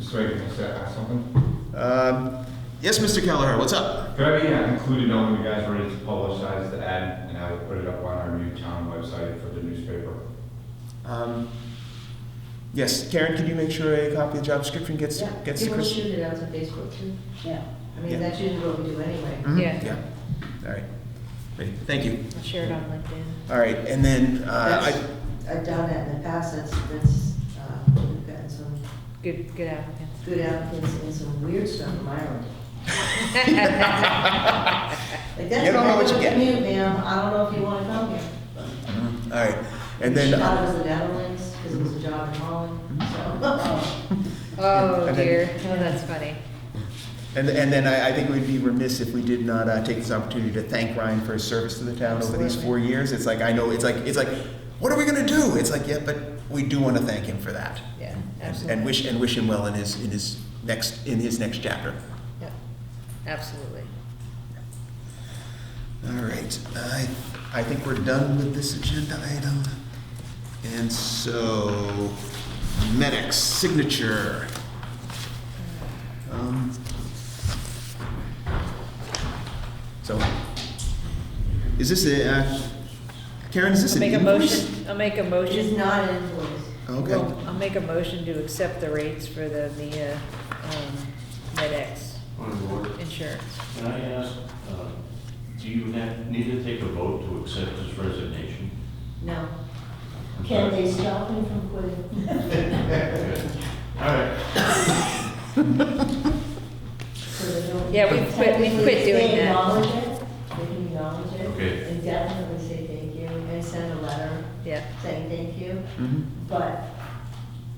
Sorry, can I say- ask something? Um, Yes, Mr. Kelleher, what's up? Could I be uh, included on when you guys ready to publicize the ad, and I will put it up on our new town website for the newspaper? Um, Yes, Karen, can you make sure a copy of the job description gets, Yeah, gets to People Chris? shoot it out to Facebook too. Yeah, I Yeah. mean, that's usually what we do anyway. Mhm, Yeah. Yeah, all right. Great, Thank you. I'll share it on LinkedIn. All right, and then, uh, That's- I, I've done that in the past, that's, that's, uh, we've gotten some Good, good applicants. good applicants and some weird stuff from Ireland. Like, that's You don't know a what you regular get. commute, ma'am, I don't know if you wanna come here. mm-hmm. all right, and then, uh, Mm-hmm. She thought it was the Netherlands, cause it was a job in Holland, so. Oh And then- dear, oh, that's funny. and, and then I, I think we'd be remiss if we did not, uh, take this opportunity to thank Ryan for his service to the town over these Absolutely. four years. It's like, I know, it's like, it's like, what are we gonna do? It's like, yeah, but we do wanna thank him for that. Yeah, And- and- absolutely. And wish, and wish him well in his, in his next, in his next chapter. Yep, absolutely. All right, I, I think we're done with this agenda item. And so, medics signature. Um, So, is this a, uh, Karen, is this I'll an make a invoice? motion, I'll make a It is motion. not an influence. Okay, Well, I'll make a motion to accept the rates for the, the, uh, um, MedX On board. insurance. Can I ask, uh, do you have- need to take a vote to accept his resignation? No. I'm can sorry. they stop him from quitting? Okay. All right, So they don't- Yeah, we quit, we quit They doing that. acknowledge it, they can acknowledge it. Okay. And definitely say thank you, and send a letter Yeah, saying thank you. Mhm. But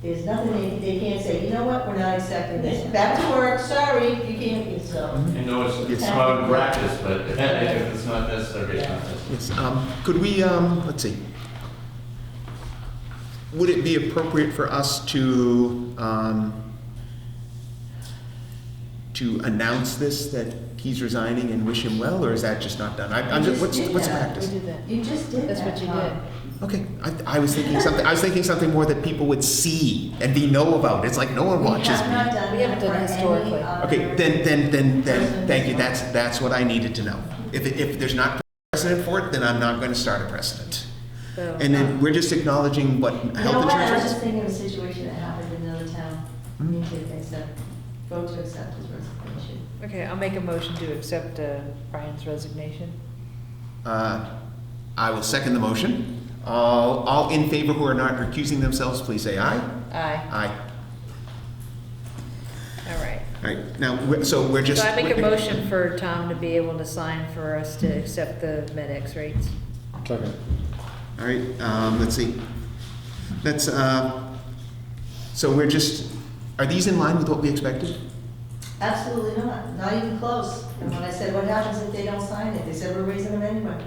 there's nothing, they, they can't say, you know what, we're not accepting this, back to work, sorry, you can't, be so. Mm-hmm. I know it's, it's Yes. common practice, but if it's not necessary, it's not necessary. yes, um, could we, um, let's see. Would it be appropriate for us to, um, to announce this, that he's resigning and wish him well, or is that just not done? I- I'm just, You just what's, did what's that. we practice? did that. You just did that. That's what you Tom. did. Okay, I, I was thinking something, I was thinking something more that people would see and be know about. It's like, no one We watches have me. not done We haven't that done for any historically. other- Okay, then, then, then, then, Person thank you, who's that's, that's what I needed to know. If, it- if there's not precedent for it, then I'm not gonna start a precedent. So, um, And then we're just acknowledging what You know health what, I insurance Mm-hmm. was just is? thinking of a situation that happened in another town, we need to accept, vote to accept his resignation. okay, I'll make a motion to accept, uh, Brian's resignation. Uh, I will second the motion. All, all in favor who are not recusing themselves, please say aye. Aye, Aye. all right. All right, now, we're- so we're just. So I make a motion for Tom to be able to sign for us to accept the MedX rates. Second. All right, um, let's see. That's, uh, so we're just, are these in line with what we expected? Absolutely not, not even close. And when I said, what happens if they don't sign it, they said, we're raising them anyway.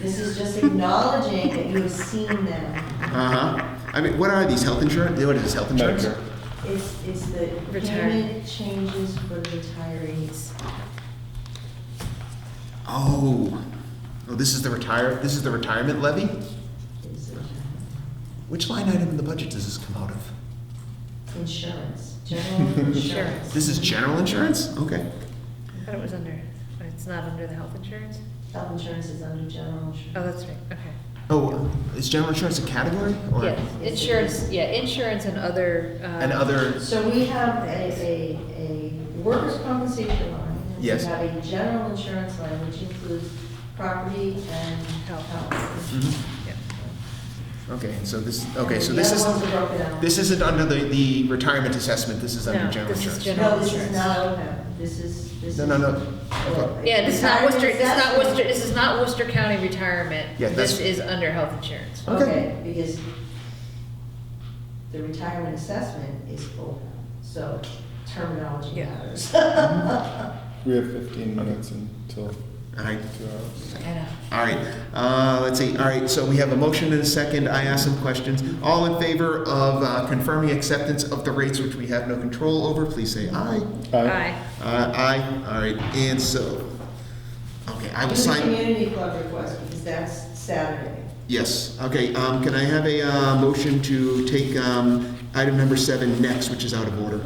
This is just acknowledging that you have seen them. Uh-huh. I mean, what are these, health insurance? What is this, health insurance? Medicare. It's, it's the Retire. payment changes for retirees. Oh, oh, this is the retire, this is the retirement levy? It's a- Which line item in the budget does this come out of? Insurance, general insurance. This is general insurance? Okay. I thought it was under, it's not under the health insurance? Health insurance is under general Oh, insurance. that's right, okay. Oh, is general insurance a category or Yes, insurance, yeah, insurance and other, uh. an other? So we have a, a, a workers' compensation line. and Yes. We have a general insurance line, which includes property and Health. health. Mhm. yeah. Okay, so this, okay, so The this other is, ones are broken out. this isn't under the, the retirement assessment, this is under No, general this is insurance. gen- No, this is not OPEB, this is, this is. No, no, no, okay, Yeah, this is not Worcester, this is not Retirement Worcester, this is not Worcester County retirement. Yeah, that's- This is under health insurance. assessment. Okay, because the retirement assessment is OPEB, so terminology Yeah. matters. We have 15 minutes until all right, two hours. I know. all right, uh, let's see, all right, so we have a motion and a second, I asked some questions. All in favor of uh, confirming acceptance of the rates which we have no control over, please say aye. Aye, Uh, aye, all right, and so, okay, I will Do the sign, community club request, because that's Saturday. yes, okay, um, can I have a, uh, motion to take, um, item number seven next, which is out of order?